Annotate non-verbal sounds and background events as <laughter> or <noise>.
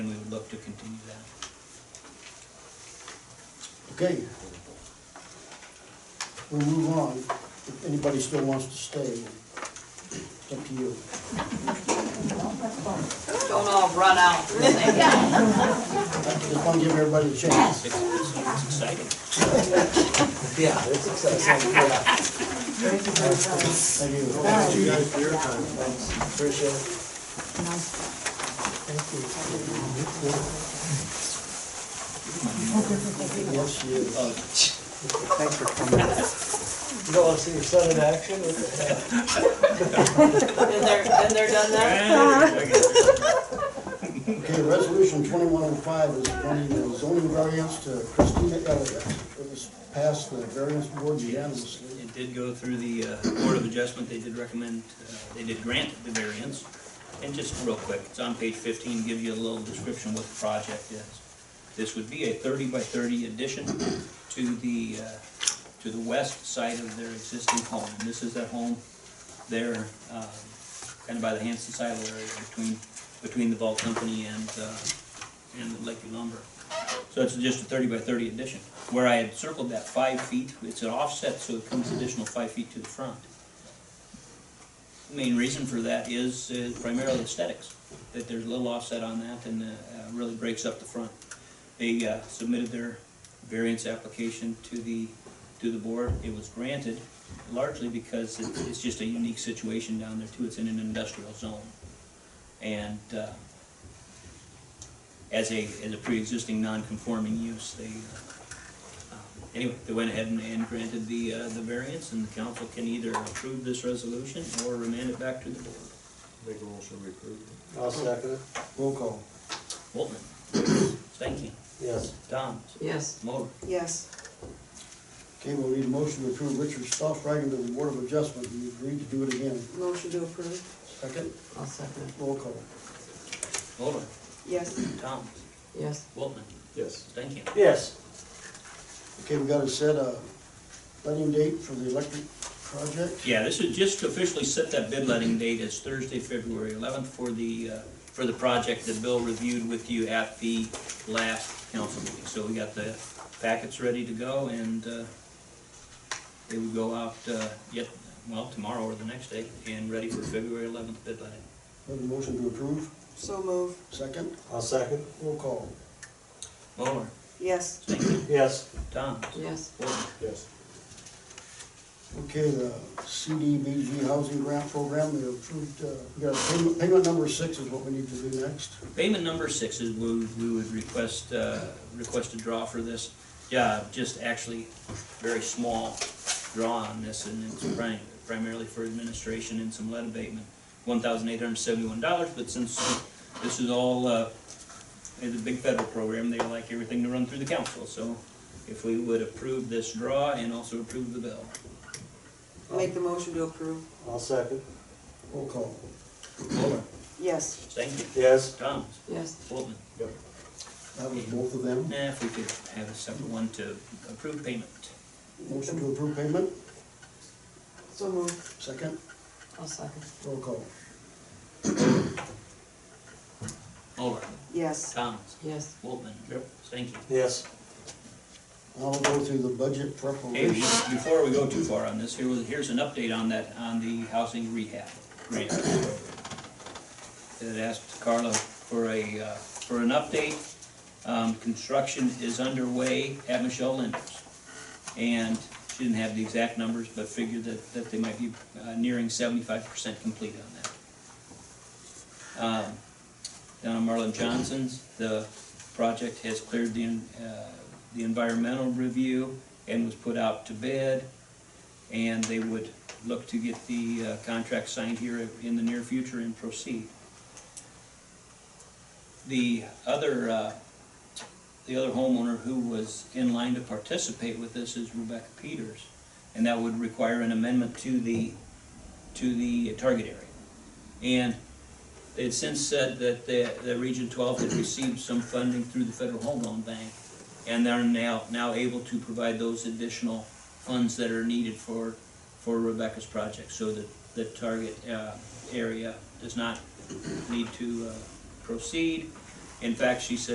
look to continue that. Okay. We'll move on, if anybody still wants to stay, it's up to you. Don't all run out, <laughs> really. Just wanna give everybody a chance. It's, it's, it's exciting. Yeah, it's exciting, yeah, Thank you. you guys for your time, thanks, appreciate it. Yes, you. Oh. You don't wanna see your son in action? What the heck? Been there, been there, done that. Okay, resolution twenty-one oh five is granting the zoning variance to Christina Elliott. It was passed the variance board unanimously. It did go through the uh, Board of Adjustment, they did recommend, uh, they did grant the variance. And just real quick, it's on page fifteen, give you a little description what the project is. This would be a thirty by thirty addition to the, uh, to the west side of their existing home. And this is that home there, um, kind of by the Hanson silo area between, between the Vault Company and, uh, and the Lakeview Lumber. So it's just a thirty by thirty addition. Where I had circled that five feet, it's an offset, so it comes additional five feet to the front. The Main reason for that is uh, primarily aesthetics, that there's a little offset on that and uh, uh, really breaks up the front. They uh, submitted their variance application to the, to the board. It was granted largely because it's, it's just a unique situation down there too. It's in an industrial zone. And, uh, as a, as a pre-existing non-conforming use, they, uh, um, anyway, they went ahead and, and granted the, uh, the variance, and the council can either approve this resolution or remand it back to the board. Make a motion to approve. it. I'll second it, Roll call. Boltman? Stankin? yes. Thomas? Yes. Moller? Yes. Okay, we'll need a motion to approve Richard Stoff writing to the Board of Adjustment. We agreed to do it again. Motion to approve. Second, I'll second. roll call. Moller? Yes. Thomas? Yes. Boltman? Yes. Stankin? Yes. Okay, we gotta set a letting date for the electric project. Yeah, this is just to officially set that bid letting date as Thursday, February eleventh for the, uh, for the project that Bill reviewed with you at the last council meeting. So we got the packets ready to go and, uh, they would go out, uh, yet, well, tomorrow or the next day and ready for February eleventh bid letting. Have a motion to approve. So move. Second, I'll second, roll call. Moller, Yes. Stankin, yes. Thomas, Yes. Woodman. Yes. Okay, the CDBG Housing Grant Program, they approved, uh, we got payment, payment number six is what we need to do next. Payment number six is we, we would request, uh, request a draw for this. Yeah, just actually very small draw on this and it's prim- primarily for administration and some lead abatement. One thousand eight hundred seventy-one dollars, but since this is all, uh, is a big federal program, they like everything to run through the council. So if we would approve this draw and also approve the bill. Make the motion to approve. I'll second, Roll call. Muller, Yes. Stankin, yes. Thomas, Yes. Woltman. That was both of them. Nah, if we could have a separate one to approve payment. Motion to approve payment, So move. second, I'll second. roll call. Muller, Yes. Thomas, Yes. Woltman. Yep. Stanky. Yes. I'll go through the budget Hey, preparation. before we go too far on this, here was, here's an update on that, on the housing rehab grant. It asked Carla for a, uh, for an update. Um, construction is underway at Michelle Linders. And she didn't have the exact numbers, but figured that, that they might be uh, nearing seventy-five percent complete on that. Um, down on Marlon Johnson's, the project has cleared the, en- uh, the environmental review and was put out to bid. And they would look to get the uh, contract signed here in the near future and proceed. The other, uh, the other homeowner who was in line to participate with this is Rebecca Peters. And that would require an amendment to the, to the target area. And they had since said that the, the Region Twelve had received some funding through the Federal Home Loan Bank, and they're now, now able to provide those additional funds that are needed for, for Rebecca's project, so that the target, uh, area does not need to, uh, proceed. In fact, she said